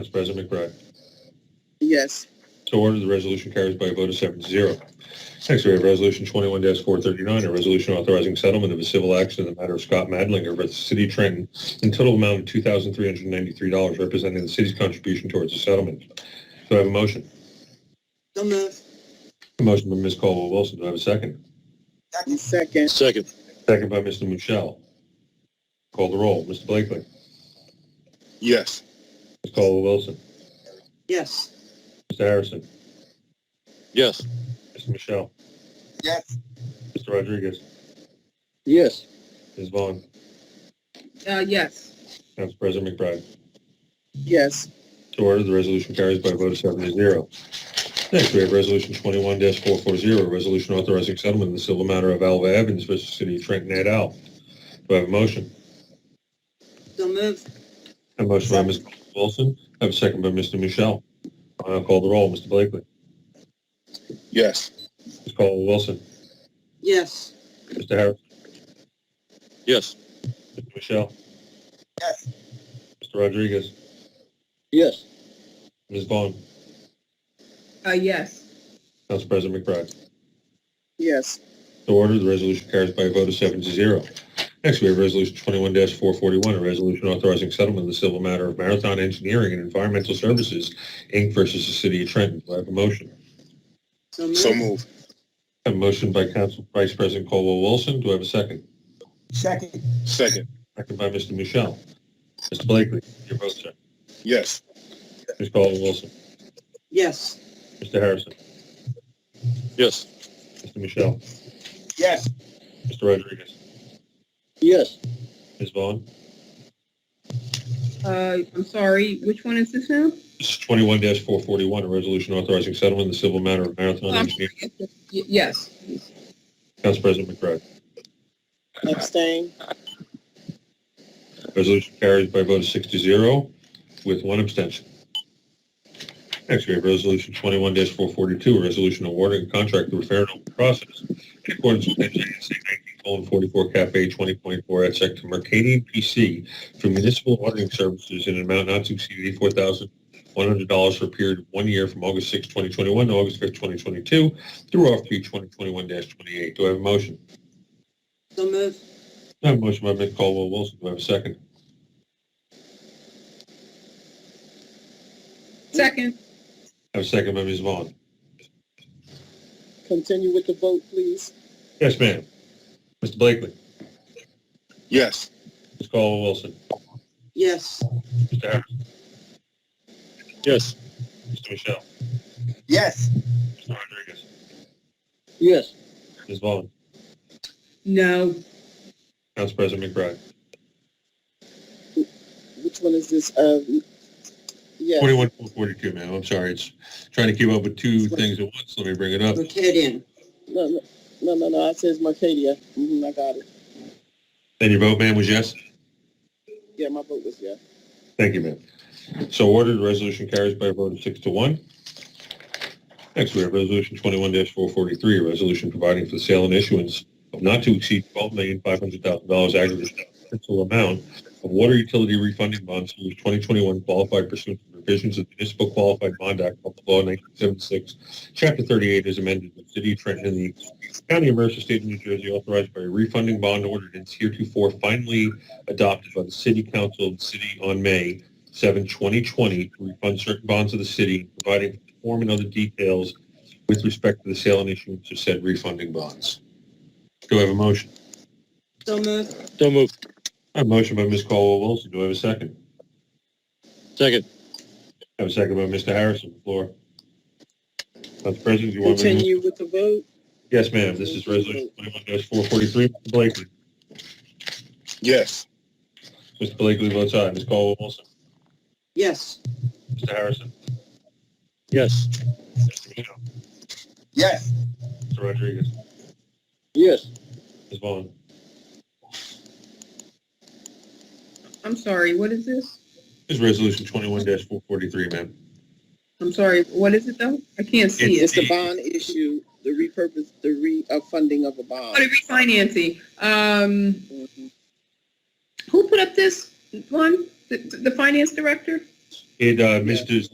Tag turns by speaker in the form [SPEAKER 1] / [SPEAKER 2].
[SPEAKER 1] Vice President McBride.
[SPEAKER 2] Yes.
[SPEAKER 1] So ordered, the resolution carries by a vote of seven to zero. Next, we have Resolution 21-439, a resolution authorizing settlement of a civil action in the matter of Scott Madlinger versus City of Trenton in total amount of $2,393, representing the city's contribution towards the settlement. Do I have a motion?
[SPEAKER 2] So move.
[SPEAKER 1] A motion by Ms. Caldwell-Wilson. Do I have a second?
[SPEAKER 2] Second.
[SPEAKER 3] Second.
[SPEAKER 1] Second by Mr. Michelle. Call the roll. Mr. Blakely.
[SPEAKER 3] Yes.
[SPEAKER 1] Ms. Caldwell-Wilson.
[SPEAKER 2] Yes.
[SPEAKER 1] Mr. Harrison.
[SPEAKER 3] Yes.
[SPEAKER 1] Mr. Michelle.
[SPEAKER 2] Yes.
[SPEAKER 1] Mr. Rodriguez.
[SPEAKER 3] Yes.
[SPEAKER 1] Ms. Vaughn.
[SPEAKER 2] Uh, yes.
[SPEAKER 1] Council President McBride.
[SPEAKER 2] Yes.
[SPEAKER 1] So ordered, the resolution carries by a vote of seven to zero. Next, we have Resolution 21-440, a resolution authorizing settlement in the civil matter of Alva Evans versus City of Trenton et al. Do I have a motion?
[SPEAKER 2] So move.
[SPEAKER 1] A motion by Ms. Wilson, I have a second by Mr. Michelle. I'll now call the roll. Mr. Blakely.
[SPEAKER 3] Yes.
[SPEAKER 1] Ms. Caldwell-Wilson.
[SPEAKER 2] Yes.
[SPEAKER 1] Mr. Harris.
[SPEAKER 3] Yes.
[SPEAKER 1] Mr. Michelle.
[SPEAKER 2] Yes.
[SPEAKER 1] Mr. Rodriguez.
[SPEAKER 3] Yes.
[SPEAKER 1] Ms. Vaughn.
[SPEAKER 2] Uh, yes.
[SPEAKER 1] Council President McBride.
[SPEAKER 2] Yes.
[SPEAKER 1] So ordered, the resolution carries by a vote of seven to zero. Next, we have Resolution 21-441, a resolution authorizing settlement of the civil matter of Marathon Engineering and Environmental Services, Inc. versus the City of Trenton. Do I have a motion?
[SPEAKER 2] So move.
[SPEAKER 3] So move.
[SPEAKER 1] A motion by Council Vice President Caldwell-Wilson. Do I have a second?
[SPEAKER 2] Second.
[SPEAKER 3] Second.
[SPEAKER 1] Second by Mr. Michelle. Mr. Blakely, your vote, sir.
[SPEAKER 3] Yes.
[SPEAKER 1] Ms. Caldwell-Wilson.
[SPEAKER 2] Yes.
[SPEAKER 1] Mr. Harrison.
[SPEAKER 3] Yes.
[SPEAKER 1] Mr. Michelle.
[SPEAKER 2] Yes.
[SPEAKER 1] Mr. Rodriguez.
[SPEAKER 3] Yes.
[SPEAKER 1] Ms. Vaughn.
[SPEAKER 4] Uh, I'm sorry, which one is this now?
[SPEAKER 1] This is 21-441, a resolution authorizing settlement in the civil matter of Marathon Engineering.
[SPEAKER 4] Y- Yes.
[SPEAKER 1] Council President McBride.
[SPEAKER 2] Abstain.
[SPEAKER 1] Resolution carries by a vote of six to zero with one abstention. Next, we have Resolution 21-442, a resolution awarding a contract through a fair and open process in accordance with NJSA 19:44 Cap A 20.4 at Sec to Mercadian PC for municipal auditing services in an amount not to exceed $84,100 for a period of one year from August 6, 2021 to August 5, 2022 through RFP 2021-28. Do I have a motion?
[SPEAKER 2] So move.
[SPEAKER 1] I have a motion by Ms. Caldwell-Wilson. Do I have a second?
[SPEAKER 4] Second,
[SPEAKER 1] I have a second by Ms. Vaughn.
[SPEAKER 2] Continue with the vote, please.
[SPEAKER 1] Yes, ma'am. Mr. Blakely.
[SPEAKER 3] Yes.
[SPEAKER 1] Ms. Caldwell-Wilson.
[SPEAKER 2] Yes.
[SPEAKER 1] Mr. Harrison.
[SPEAKER 3] Yes.
[SPEAKER 1] Mr. Michelle.
[SPEAKER 2] Yes.
[SPEAKER 1] Mr. Rodriguez.
[SPEAKER 3] Yes.
[SPEAKER 1] Ms. Vaughn.
[SPEAKER 4] no,
[SPEAKER 1] Council President McBride.
[SPEAKER 2] Which one is this? Um, yes.
[SPEAKER 1] Forty-one, four forty-two, ma'am. I'm sorry. It's trying to keep up with two things at once. Let me bring it up.
[SPEAKER 2] Mercadian. No, no, no, no, no. I says Mercadia. Mm-hmm, I got it.
[SPEAKER 1] And your vote, ma'am, was yes?
[SPEAKER 2] Yeah, my vote was yes.
[SPEAKER 1] Thank you, ma'am. So ordered, the resolution carries by a vote of six to one. Next, we have Resolution 21-443, a resolution providing for the sale and issuance of not to exceed $12,500,000 aggregate principal amount of water utility refunding bonds series 2021 qualified pursuant to provisions of the Municipal Qualified Bond Act, Public Law 1976, Chapter 38 is amended by the City of Trenton and the County of Mercer, State of New Jersey, authorized by a refunding bond ordinance heretofore finally adopted by the City Council of the City on May 7, 2020, to refund certain bonds of the city, providing for form and other details with respect to the sale and issuance of said refunding bonds. Do I have a motion?
[SPEAKER 2] So move.
[SPEAKER 3] So move.
[SPEAKER 1] I have a motion by Ms. Caldwell-Wilson. Do I have a second?
[SPEAKER 3] Second.
[SPEAKER 1] I have a second by Mr. Harrison. The floor. Council President, you want me to? move?
[SPEAKER 2] Continue with the vote.
[SPEAKER 1] Yes, ma'am. This is Resolution 21-443. Mr. Blakely.
[SPEAKER 3] Yes.
[SPEAKER 1] Mr. Blakely votes aye. Ms. Caldwell-Wilson.
[SPEAKER 2] Yes.
[SPEAKER 1] Mr. Harrison.
[SPEAKER 3] Yes.
[SPEAKER 1] Mr. Michelle.
[SPEAKER 2] Yes.
[SPEAKER 1] Mr. Rodriguez.
[SPEAKER 3] Yes.
[SPEAKER 1] Ms. Vaughn.
[SPEAKER 4] I'm sorry, what is this?
[SPEAKER 1] This is Resolution 21-443, ma'am.
[SPEAKER 4] I'm sorry, what is it though? I can't see
[SPEAKER 2] It's
[SPEAKER 4] it.
[SPEAKER 2] the bond issue, the repurpose, the re, uh, funding of a
[SPEAKER 4] Oh, the
[SPEAKER 2] bond.
[SPEAKER 4] refinancing, um, who put up this one? The, the finance director?
[SPEAKER 1] Did uh, Mr.